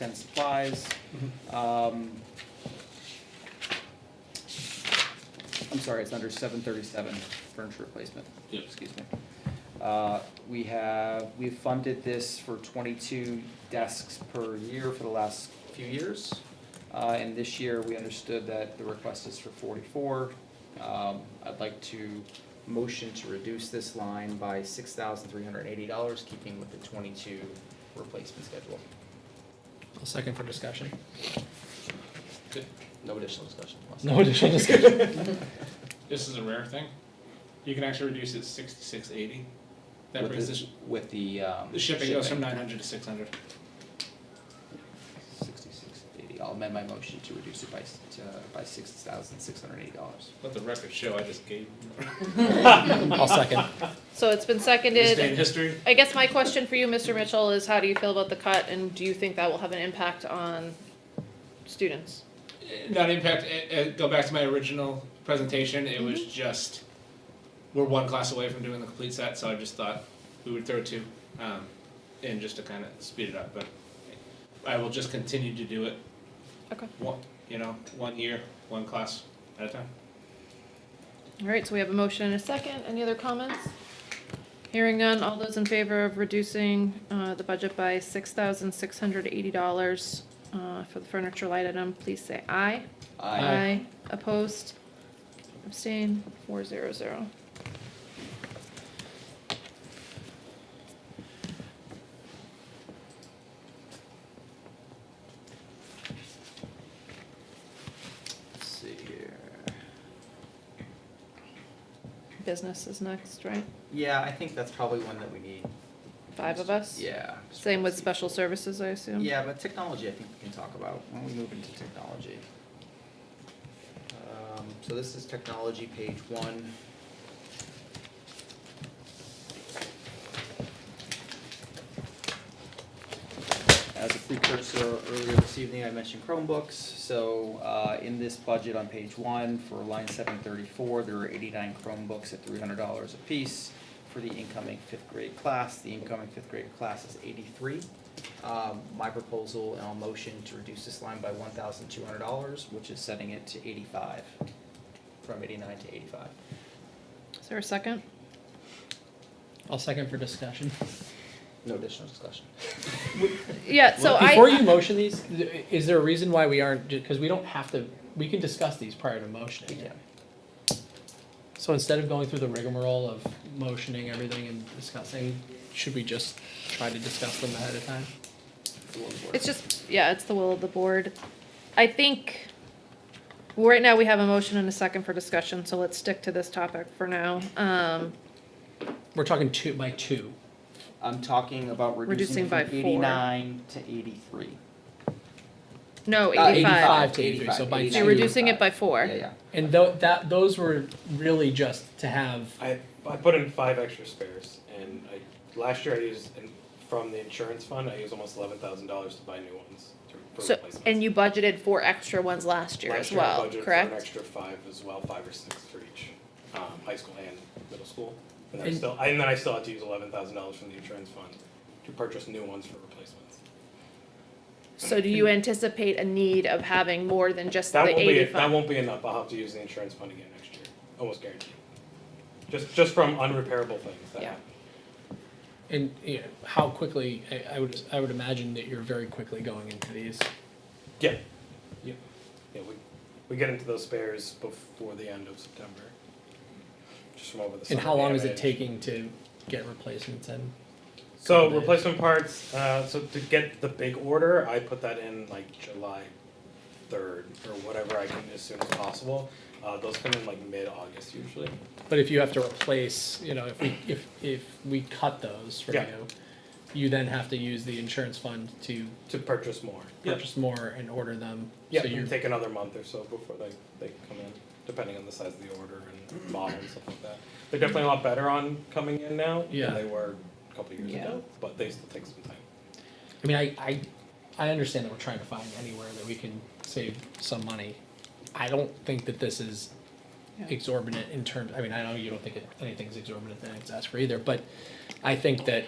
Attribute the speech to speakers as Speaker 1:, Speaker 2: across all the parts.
Speaker 1: and supplies. Um, I'm sorry, it's under seven thirty-seven, furniture replacement,
Speaker 2: Yep.
Speaker 1: excuse me. Uh, we have, we've funded this for twenty-two desks per year for the last few years. Uh, and this year, we understood that the request is for forty-four. Um, I'd like to motion to reduce this line by six thousand three hundred and eighty dollars, keeping with the twenty-two replacement schedule.
Speaker 3: I'll second for discussion.
Speaker 1: No additional discussion.
Speaker 3: No additional discussion.
Speaker 2: This is a rare thing. You can actually reduce it six to six eighty. That
Speaker 1: With
Speaker 2: brings
Speaker 1: the-
Speaker 2: the, sh-
Speaker 1: With the, um.
Speaker 2: the shipping goes from nine hundred to six hundred.
Speaker 1: Sixty-six eighty, I'll amend my motion to reduce it by, s- to, by six thousand six hundred and eighty dollars.
Speaker 2: Let the record show I just gave.
Speaker 3: I'll second.
Speaker 4: So it's been
Speaker 2: This day in
Speaker 4: seconded.
Speaker 2: history.
Speaker 4: I guess my question for you, Mr. Mitchell, is how do you feel about the cut and do you think that will have an impact on students?
Speaker 2: Uh, Not impact. Uh, uh, go back to my original presentation. It was just we're one class away from doing the complete set, so I just thought we would throw two, um, in just to kind of speed it up. But I will just continue to do it.
Speaker 4: Okay.
Speaker 2: One, you know, one year, one class at a time.
Speaker 4: All right, so we have a motion and a second. Any other comments? Hearing none, all those in favor of reducing uh, the budget by six thousand six hundred eighty dollars uh, for the furniture light item, please say aye.
Speaker 1: I
Speaker 4: Opposed? Abstain? Four zero zero.
Speaker 1: Let's see here.
Speaker 4: Business is next, right?
Speaker 1: Yeah, I think that's probably one that we need.
Speaker 4: Five of us?
Speaker 1: Yeah. just
Speaker 4: Same with
Speaker 1: see.
Speaker 4: special services, I assume?
Speaker 1: Yeah, but technology, I think we can talk about, when we move into technology. Um, so this is technology, page one. As a precursor, earlier this evening, I mentioned Chromebooks, so, uh, in this budget on page one, for line seven thirty-four, there are eighty-nine Chromebooks at three hundred dollars apiece for the incoming fifth grade class, the incoming fifth grade class is eighty-three. Um, my proposal and I'll motion to reduce this line by one thousand two hundred dollars, which is setting it to eighty-five, from eighty-nine to eighty-five.
Speaker 4: Is there a second?
Speaker 3: I'll second for discussion.
Speaker 1: No additional discussion.
Speaker 4: Yeah, so I.
Speaker 3: Before you motion these, th- is there a reason why we aren't, because we don't have to, we can discuss these prior to motioning.
Speaker 1: Yeah.
Speaker 3: So instead of going through the rigmarole of motioning everything and discussing, should we just try to discuss them ahead of time?
Speaker 4: It's just, yeah, it's the will of the board. I think, well, right now we have a motion and a second for discussion, so let's stick to this topic for now. Um,
Speaker 3: We're talking two, by two.
Speaker 1: I'm talking about reducing
Speaker 4: Reducing
Speaker 1: it from
Speaker 4: by four.
Speaker 1: eighty-nine to eighty-three.
Speaker 4: no,
Speaker 1: Uh,
Speaker 4: Oh, eighty-five.
Speaker 3: to 83, so by
Speaker 1: 85,
Speaker 4: So you're
Speaker 3: two.
Speaker 4: reducing it by four.
Speaker 1: Yeah, yeah.
Speaker 3: And tho- that, those were really just to have,
Speaker 5: I, I put in five extra spares, and I last year I used and from the insurance fund. I used almost eleven thousand dollars to buy new ones to, for
Speaker 4: So,
Speaker 5: replacements.
Speaker 4: and you budgeted four extra ones last year as
Speaker 5: last year I
Speaker 4: well,
Speaker 5: budgeted for an
Speaker 4: correct?
Speaker 5: extra five as well, five or six for each, um, high school and middle school. And, I
Speaker 3: And-
Speaker 5: still, and then I still had to use eleven thousand dollars from the insurance fund to purchase new ones for replacements.
Speaker 4: So do you anticipate a need of having more than just the
Speaker 5: That won't be that
Speaker 4: eighty-five?
Speaker 5: won't be enough. I'll have to use the insurance fund again next year, almost guaranteed. Just just from unrepairable things. That
Speaker 4: Yeah.
Speaker 5: happen.
Speaker 3: and, you know, how quickly, I, I would, I would imagine that you're very quickly going into these.
Speaker 5: Yeah.
Speaker 3: Yeah.
Speaker 5: Yeah, we, we get into those spares before the end of September. Just from over the summer.
Speaker 3: And how long is it
Speaker 5: damage.
Speaker 3: taking to get replacements in?
Speaker 5: So
Speaker 3: Couple days.
Speaker 5: replacement parts, uh, so to get the big order, I put that in like July third or whatever I can as soon as possible. Uh, those come in like mid-August usually.
Speaker 3: But if you have to replace, you know, if we, if, if we cut those for you,
Speaker 5: Yeah.
Speaker 3: you then have to use the insurance fund to
Speaker 5: To purchase more.
Speaker 3: purchase more and order them.
Speaker 5: Yeah,
Speaker 3: So
Speaker 5: you
Speaker 3: you're,
Speaker 5: take another month or so before they, they come in, depending on the size of the order and model and stuff like that. They're definitely a lot better on coming in now
Speaker 3: Yeah.
Speaker 5: than they were a couple of years
Speaker 1: Yeah.
Speaker 5: ago, but they still take some time.
Speaker 3: I mean, I, I, I understand that we're trying to find anywhere that we can save some money. I don't think that this is
Speaker 4: Yeah.
Speaker 3: exorbitant in terms, I mean, I know you don't think it- anything's exorbitant than it's asked for either, but I think that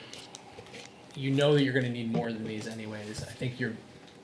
Speaker 3: you know that you're gonna need more than these anyways. I think you're